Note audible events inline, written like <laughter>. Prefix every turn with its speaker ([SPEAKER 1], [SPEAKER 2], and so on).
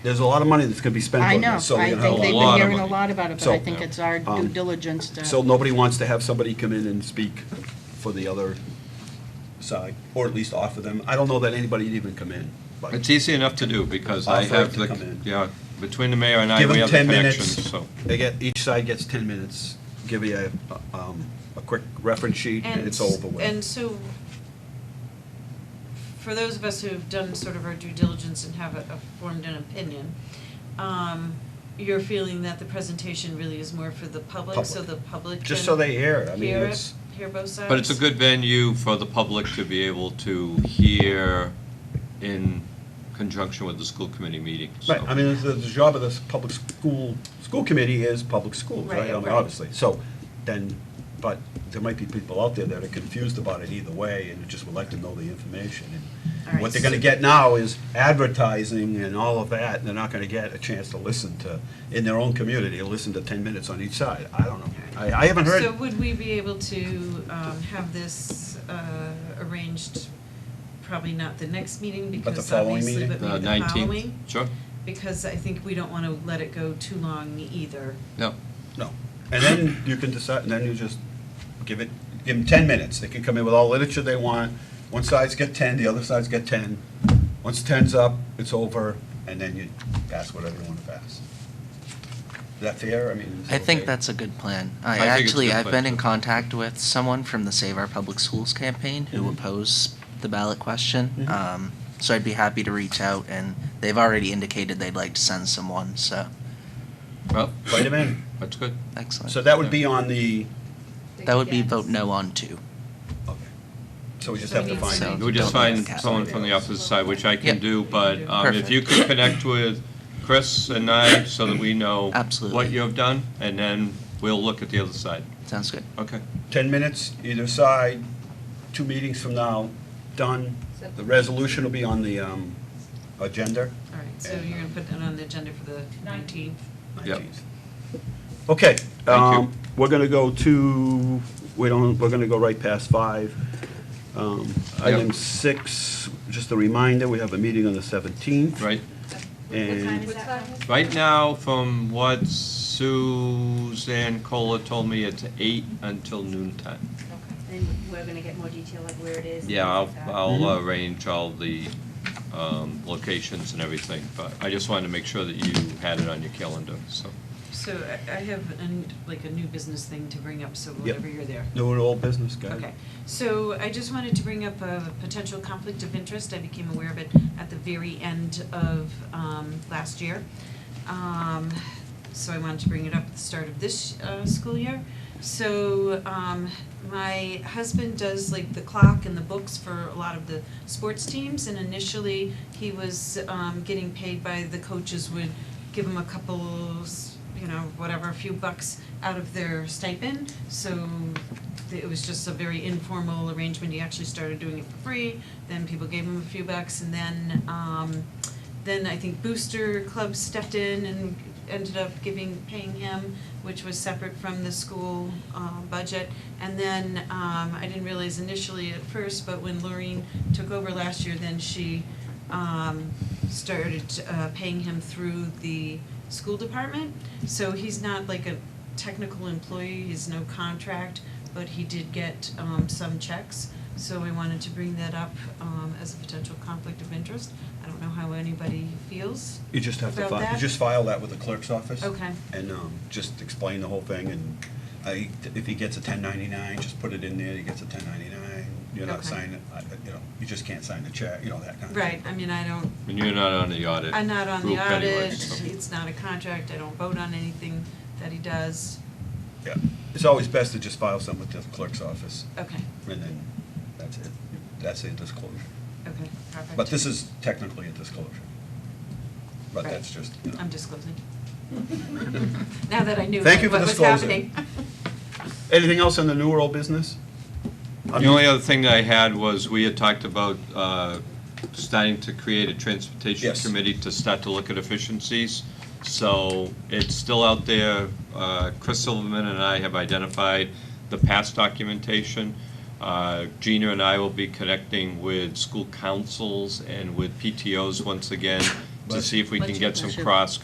[SPEAKER 1] There's a lot of money that's going to be spent
[SPEAKER 2] I
[SPEAKER 1] on
[SPEAKER 2] know, I
[SPEAKER 1] this, so we're going
[SPEAKER 2] think
[SPEAKER 1] to have
[SPEAKER 2] they've
[SPEAKER 1] a
[SPEAKER 2] been
[SPEAKER 1] lot of
[SPEAKER 2] hearing a
[SPEAKER 1] money.
[SPEAKER 2] lot about it, but
[SPEAKER 1] So-
[SPEAKER 2] I think it's our due
[SPEAKER 1] um,
[SPEAKER 2] diligence to.
[SPEAKER 1] So nobody wants to have somebody come in and speak for the other side, or at least offer them. I don't know that anybody'd even come in, but
[SPEAKER 3] It's easy enough to do, because I
[SPEAKER 1] Offer
[SPEAKER 3] have
[SPEAKER 1] to come
[SPEAKER 3] the,
[SPEAKER 1] in.
[SPEAKER 3] yeah, between the mayor and I,
[SPEAKER 1] give
[SPEAKER 3] we
[SPEAKER 1] them
[SPEAKER 3] have the
[SPEAKER 1] 10
[SPEAKER 3] connections,
[SPEAKER 1] minutes.
[SPEAKER 3] so.
[SPEAKER 1] They get, each side gets 10 minutes, give you a, um, a quick reference sheet, and it's
[SPEAKER 4] s-
[SPEAKER 1] over with.
[SPEAKER 4] And so, for those of us who've done sort of our due diligence and have a, a formed an opinion, um, you're feeling that the presentation really is more for the public, so
[SPEAKER 1] Public.
[SPEAKER 4] the public can
[SPEAKER 1] Just so they hear, I mean,
[SPEAKER 4] hear it,
[SPEAKER 1] it's,
[SPEAKER 4] hear both sides?
[SPEAKER 3] But it's a good venue for the public to be able to hear in conjunction with the school committee meeting, so.
[SPEAKER 1] right, I mean, the, the job of this public school, school committee is public schools, right?
[SPEAKER 4] Right,
[SPEAKER 1] I mean,
[SPEAKER 4] right.
[SPEAKER 1] Obviously, so, then, but there might be people out there that are confused about it either way, and just would like to know the information.
[SPEAKER 4] All
[SPEAKER 1] And
[SPEAKER 4] right,
[SPEAKER 1] What they're gonna
[SPEAKER 4] so-
[SPEAKER 1] get now is advertising and all of that, and they're not gonna get a chance to listen to, in their own community, listen to ten minutes on each side, I don't know. I, I haven't heard.
[SPEAKER 4] So would we be able to, um, have this, uh, arranged, probably not the next
[SPEAKER 1] But
[SPEAKER 4] meeting,
[SPEAKER 1] the
[SPEAKER 4] because
[SPEAKER 1] following
[SPEAKER 4] obviously,
[SPEAKER 1] meeting?
[SPEAKER 4] but
[SPEAKER 3] The
[SPEAKER 4] maybe the following?
[SPEAKER 3] nineteenth, sure,
[SPEAKER 4] Because I think we don't wanna let it go too long either.
[SPEAKER 3] yeah.
[SPEAKER 1] No. And then you can decide, and then you just give it, give them 10 minutes. They can come in with all literature they want. One side's get 10, the other side's get 10. Once 10's up, it's over, and then you pass whatever you want to pass. Is that fair? I mean. is that
[SPEAKER 5] I think
[SPEAKER 1] okay?
[SPEAKER 5] that's a good plan. I,
[SPEAKER 3] I think it's a
[SPEAKER 5] actually,
[SPEAKER 3] good
[SPEAKER 5] I've
[SPEAKER 3] plan,
[SPEAKER 5] been
[SPEAKER 3] too.
[SPEAKER 5] in contact with someone from the Save Our Public Schools campaign who
[SPEAKER 3] Mm-hmm.
[SPEAKER 1] Mhm.
[SPEAKER 5] opposed the ballot question.
[SPEAKER 1] Mhm.
[SPEAKER 5] Um, so I'd be happy to reach out, and they've already indicated they'd like to send someone. So
[SPEAKER 3] Well,
[SPEAKER 1] Wait a minute.
[SPEAKER 3] that's good.
[SPEAKER 5] excellent.
[SPEAKER 1] So that would be on the,
[SPEAKER 5] that would be vote no on two.
[SPEAKER 1] okay. So we just
[SPEAKER 4] So
[SPEAKER 1] have
[SPEAKER 4] we
[SPEAKER 1] to
[SPEAKER 4] need
[SPEAKER 1] find.
[SPEAKER 4] some-
[SPEAKER 3] We just
[SPEAKER 5] Don't
[SPEAKER 3] find
[SPEAKER 5] cast
[SPEAKER 3] someone from the opposite side, which I can
[SPEAKER 5] Yep.
[SPEAKER 3] do, but um, if you could connect with Chris and I, so that we know
[SPEAKER 5] Absolutely.
[SPEAKER 3] what you have done, and then we'll look at the other side.
[SPEAKER 5] Sounds good.
[SPEAKER 3] Okay.
[SPEAKER 1] 10 minutes either side, two meetings from now, done. The resolution will be on the um, agenda.
[SPEAKER 4] All right, so you're gonna put that on the agenda for the nineteenth?
[SPEAKER 3] Yep.
[SPEAKER 1] 19th. Okay,
[SPEAKER 3] you.
[SPEAKER 1] um, we're gonna go to, we don't, we're gonna go right past five. Um, Item
[SPEAKER 3] Yep.
[SPEAKER 1] six, just a reminder, we have a meeting on the 17th.
[SPEAKER 3] Right,
[SPEAKER 1] And
[SPEAKER 3] right now, from what Suzanne Cola told me, it's eight until noon time.
[SPEAKER 6] And we're gonna get more detail like where it is.
[SPEAKER 3] Yeah, I'll,
[SPEAKER 6] things like that.
[SPEAKER 3] I'll uh, arrange all the um, locations and everything, but I just wanted to make sure that you had it on your calendar, so.
[SPEAKER 4] So I- I have, an- like, a new business thing to bring up, so whenever you're there.
[SPEAKER 1] no old business, guys.
[SPEAKER 4] Okay, so I just wanted to bring up a potential conflict of interest. I became aware of it at the very end of um, last year. Um, So I wanted to bring it up at the start of this uh, school year. So um, my husband does like the clock and the books for a lot of the sports teams. And initially, he was um, getting paid by the coaches would give him a couple, you know, whatever, a few bucks out of their stipend. So it was just a very informal arrangement, he actually started doing it for free, then people gave him a few bucks, and then, um, then I think Booster Club stepped in and ended up giving, paying him, which was separate from the school, uh, budget. And then, um, I didn't realize initially at first, but when Lorraine took over last year, then she, um, started, uh, paying him through the school department. So he's not like a technical employee, he's no contract, but he did get um some checks. So we wanted to bring that up um as a potential conflict of interest. I don't know how anybody feels.
[SPEAKER 1] You just have to
[SPEAKER 4] About
[SPEAKER 1] file, you
[SPEAKER 4] that?
[SPEAKER 1] just file that with the clerk's office.
[SPEAKER 4] Okay.
[SPEAKER 1] And um, just explain the whole thing, and I, if he gets a 1099, just put it in there, he gets a 1099, you're not
[SPEAKER 4] Okay.
[SPEAKER 1] signing, I- you know, you just can't sign the check, you know, that kind of thing.
[SPEAKER 4] Right, I mean, I don't,
[SPEAKER 3] And you're not on the audit.
[SPEAKER 4] I'm not on the
[SPEAKER 3] group anyway,
[SPEAKER 4] audit,
[SPEAKER 3] so.
[SPEAKER 4] it's not a contract, I don't vote on anything that he does.
[SPEAKER 1] Yeah, it's always best to just file something with the clerk's office,
[SPEAKER 4] Okay,
[SPEAKER 1] and then that's it, that's a disclosure.
[SPEAKER 4] okay, perfect.
[SPEAKER 1] But this is technically a disclosure. But
[SPEAKER 4] Right.
[SPEAKER 1] that's just, you know.
[SPEAKER 4] I'm disclosing. <laughs> Now that I knew
[SPEAKER 1] Thank
[SPEAKER 4] like,
[SPEAKER 1] you for
[SPEAKER 4] what was
[SPEAKER 1] disclosing.
[SPEAKER 4] happening.
[SPEAKER 1] Anything else in the new world business?
[SPEAKER 3] The only other thing that I had was, we had talked about uh, starting to create a transportation
[SPEAKER 1] Yes.
[SPEAKER 3] committee to start to look at efficiencies. So it's still out there. Uh, Chris Silverman and I have identified the past documentation. Uh, Gina and I will be connecting with school councils and with PTOs once again
[SPEAKER 2] to see if we can
[SPEAKER 3] Budget
[SPEAKER 2] get some
[SPEAKER 3] pressure.
[SPEAKER 2] cross